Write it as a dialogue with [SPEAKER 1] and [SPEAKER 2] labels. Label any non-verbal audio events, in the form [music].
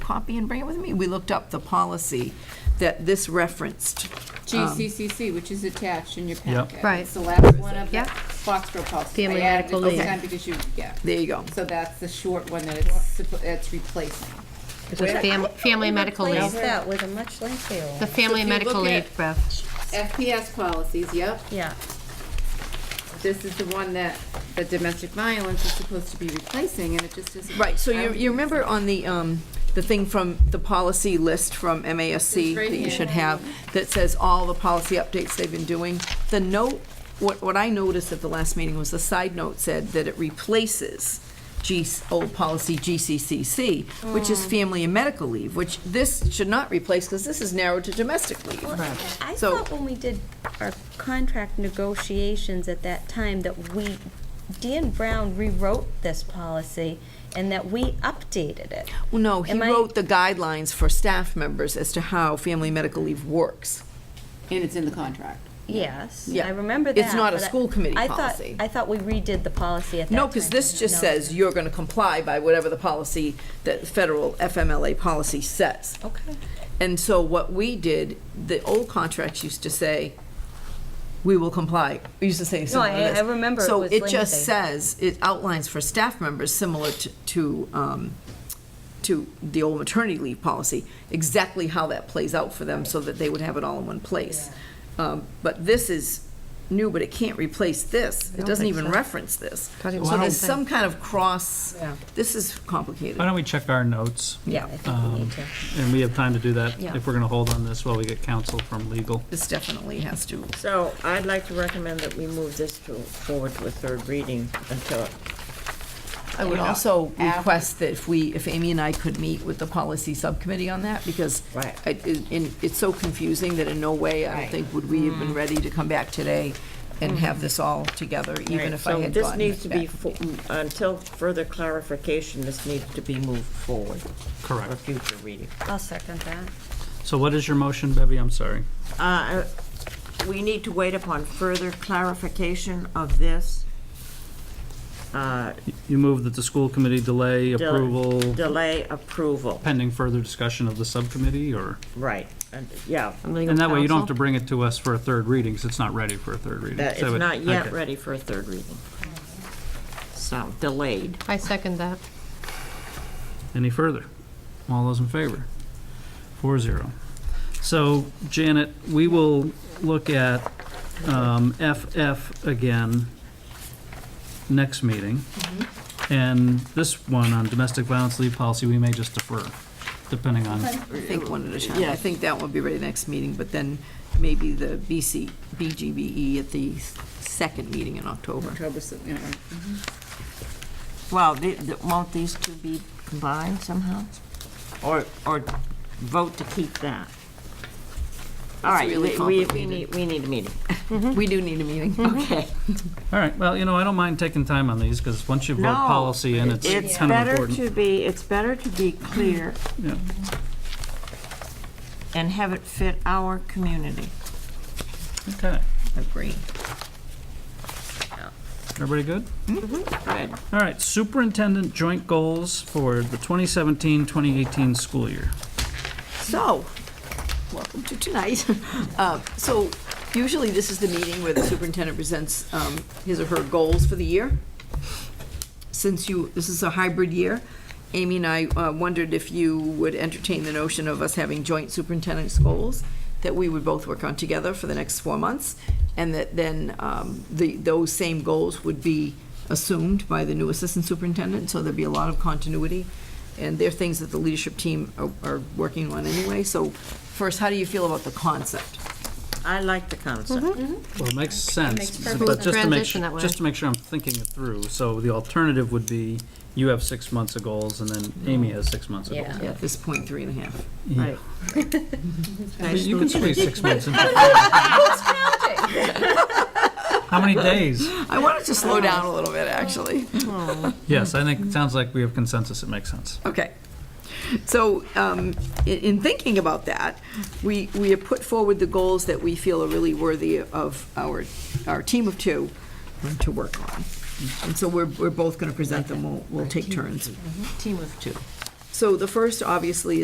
[SPEAKER 1] copy and bring it with me? We looked up the policy that this referenced.
[SPEAKER 2] Um, GCCC, which is attached in your packet.
[SPEAKER 3] Right.
[SPEAKER 2] It's the last one of the
[SPEAKER 3] Yep.
[SPEAKER 2] Foxborough policy.
[SPEAKER 3] Family
[SPEAKER 2] I added it
[SPEAKER 3] medical
[SPEAKER 2] this
[SPEAKER 3] leave.
[SPEAKER 2] time because you, yeah.
[SPEAKER 1] There you go.
[SPEAKER 2] So that's the short one that it's, suppo- it's replacing.
[SPEAKER 3] It was fam- family medical
[SPEAKER 4] Replace
[SPEAKER 3] leave,
[SPEAKER 4] that with a much lengthier
[SPEAKER 3] the
[SPEAKER 4] one.
[SPEAKER 3] family
[SPEAKER 2] So if you
[SPEAKER 3] medical
[SPEAKER 2] look at-
[SPEAKER 3] leave, Beth.
[SPEAKER 2] FPS policies, yep.
[SPEAKER 4] Yeah,
[SPEAKER 2] This is the one that, the domestic violence is supposed to be replacing, and it just isn't.
[SPEAKER 1] Right, so
[SPEAKER 2] I
[SPEAKER 1] you,
[SPEAKER 2] don't
[SPEAKER 1] you
[SPEAKER 2] think it's-
[SPEAKER 1] remember on the, um, the thing from, the policy list from MASC
[SPEAKER 2] It's right
[SPEAKER 1] that you
[SPEAKER 2] here.
[SPEAKER 1] should have, that says all the policy updates they've been doing? The note, what, what I noticed at the last meeting was the side note said that it replaces G, old policy GCCC, which
[SPEAKER 2] Oh.
[SPEAKER 1] is family and medical leave, which this should not replace, because this is narrowed to domestic leave.
[SPEAKER 4] well, I
[SPEAKER 1] So-
[SPEAKER 4] thought when we did our contract negotiations at that time that we, Dan Brown rewrote this policy and that we updated it.
[SPEAKER 1] Well, no, he
[SPEAKER 4] Am I-
[SPEAKER 1] wrote the guidelines for staff members as to how family medical leave works.
[SPEAKER 2] And it's in the contract.
[SPEAKER 4] Yes,
[SPEAKER 1] Yeah.
[SPEAKER 4] I remember that.
[SPEAKER 1] It's not a
[SPEAKER 4] but I-
[SPEAKER 1] school committee
[SPEAKER 4] I thought-
[SPEAKER 1] policy.
[SPEAKER 4] I thought we redid the policy at that time.
[SPEAKER 1] No, because this just
[SPEAKER 4] No.
[SPEAKER 1] says you're going to comply by whatever the policy, that federal FMLA policy says.
[SPEAKER 4] Okay.
[SPEAKER 1] And so what we did, the old contracts used to say, we will comply, We used to say similar to
[SPEAKER 4] I-
[SPEAKER 1] this.
[SPEAKER 4] I remember it
[SPEAKER 1] So
[SPEAKER 4] was
[SPEAKER 1] it just
[SPEAKER 4] lengthy.
[SPEAKER 1] says, it outlines for staff members similar to, to, um, to the old maternity leave policy, exactly how that plays out for them so that they would have it all in one place. Um, But this is new, but it can't replace this. It
[SPEAKER 3] don't
[SPEAKER 1] doesn't
[SPEAKER 3] think
[SPEAKER 1] even
[SPEAKER 3] so.
[SPEAKER 1] reference this.
[SPEAKER 3] Thought it was
[SPEAKER 1] So
[SPEAKER 3] the
[SPEAKER 1] there's
[SPEAKER 3] same.
[SPEAKER 1] some kind of cross, this is
[SPEAKER 5] Why
[SPEAKER 1] complicated.
[SPEAKER 5] don't we check our notes?
[SPEAKER 4] Yeah, I think we
[SPEAKER 5] Um,
[SPEAKER 4] need to.
[SPEAKER 5] And we have time to do that
[SPEAKER 4] Yeah.
[SPEAKER 5] if we're going to hold on this while we get counsel from legal.
[SPEAKER 1] This definitely has to,
[SPEAKER 6] So I'd like to recommend that we move this to, forward to a third reading until,
[SPEAKER 1] I would also request that if we, if Amy and I could meet with the policy subcommittee on that, because
[SPEAKER 6] Right.
[SPEAKER 1] I- it- in- it's so confusing that in no way, I don't think, would we have
[SPEAKER 6] Mm.
[SPEAKER 1] been ready to come back today and have this all together, even if I
[SPEAKER 6] Mm-hmm. so
[SPEAKER 1] had
[SPEAKER 6] this
[SPEAKER 1] gotten
[SPEAKER 6] needs to
[SPEAKER 1] it
[SPEAKER 6] be,
[SPEAKER 1] back.
[SPEAKER 6] fo- mm, until further clarification, this needs to be moved forward for
[SPEAKER 5] Correct.
[SPEAKER 6] future reading.
[SPEAKER 4] I'll second that.
[SPEAKER 5] So what is your motion, Bevy? I'm sorry.
[SPEAKER 6] Uh, We need to wait upon further clarification of this uh,
[SPEAKER 5] You move that the school committee delay
[SPEAKER 6] Delay.
[SPEAKER 5] approval
[SPEAKER 6] delay approval,
[SPEAKER 5] pending further discussion of the subcommittee, or?
[SPEAKER 6] right, and- yeah.
[SPEAKER 5] And that way, you don't have to bring it to us for a third reading, because it's not ready for a third reading.
[SPEAKER 6] That it's
[SPEAKER 5] So it-
[SPEAKER 6] not yet
[SPEAKER 5] okay.
[SPEAKER 6] ready for a third reading. So delayed.
[SPEAKER 3] I second that.
[SPEAKER 5] Any further? All those in favor? Four zero. So Janet, we will look at um, FF again next meeting. And this one on domestic violence leave policy, we may just defer, depending on,
[SPEAKER 1] I think one at a time. I think that would be ready next meeting, but then maybe the BC, BGBE E at the second meeting in October.
[SPEAKER 2] October, so, you know,
[SPEAKER 6] Well, the- the- won't these two be combined somehow? Or, or vote to keep that? All right,
[SPEAKER 1] really
[SPEAKER 6] we, we- we
[SPEAKER 1] complicated.
[SPEAKER 6] need, we need a meeting.
[SPEAKER 1] We do need a meeting.
[SPEAKER 5] Mm-hmm.
[SPEAKER 6] Okay.
[SPEAKER 5] all right, well, you know, I don't mind taking time on these, because once you vote
[SPEAKER 6] No,
[SPEAKER 5] policy in, it's
[SPEAKER 6] It's
[SPEAKER 5] kind of
[SPEAKER 6] better
[SPEAKER 5] important.
[SPEAKER 6] to be, it's better to be clear
[SPEAKER 5] Yeah.
[SPEAKER 6] and have it fit our community.
[SPEAKER 5] Okay,
[SPEAKER 6] Mm-hmm.
[SPEAKER 1] Agree.
[SPEAKER 5] everybody good?
[SPEAKER 6] Mm-hmm. Good.
[SPEAKER 5] All right, superintendent joint goals for the 2017-2018 school year.
[SPEAKER 1] So, welcome to tonight. [laughs] Uh, So usually this is the meeting where the superintendent presents um, his or her goals for the year. Since you, this is a hybrid year, Amy and I uh, wondered if you would entertain the notion of us having joint superintendent's goals that we would both work on together for the next four months, and that then um, the, those same goals would be assumed by the new assistant superintendent, so there'd be a lot of continuity. And they're things that the leadership team are, are working on anyway. So first, how do you feel about the concept?
[SPEAKER 6] I like the concept.
[SPEAKER 5] Well, it makes sense, but
[SPEAKER 3] perfect
[SPEAKER 5] just to make,
[SPEAKER 3] Transition that
[SPEAKER 5] su-
[SPEAKER 3] way.
[SPEAKER 5] just to make sure I'm thinking it through, so the alternative would be you have six months of goals and then Amy has six months of goals.
[SPEAKER 1] Yeah, At this point, three and a half.
[SPEAKER 5] Yeah. I mean, You can squeeze
[SPEAKER 3] [laughs]
[SPEAKER 5] six months in. How many days?
[SPEAKER 1] I wanted to slow down a little bit, actually.
[SPEAKER 5] Yes, I think, it sounds like we have consensus, it makes sense.
[SPEAKER 1] Okay. So um, i- in thinking about that, we, we have put forward the goals that we feel are really worthy of our, our team of two to work on. And so we're, we're both going to present them. We'll, we'll take turns. Team of two. So the first, obviously,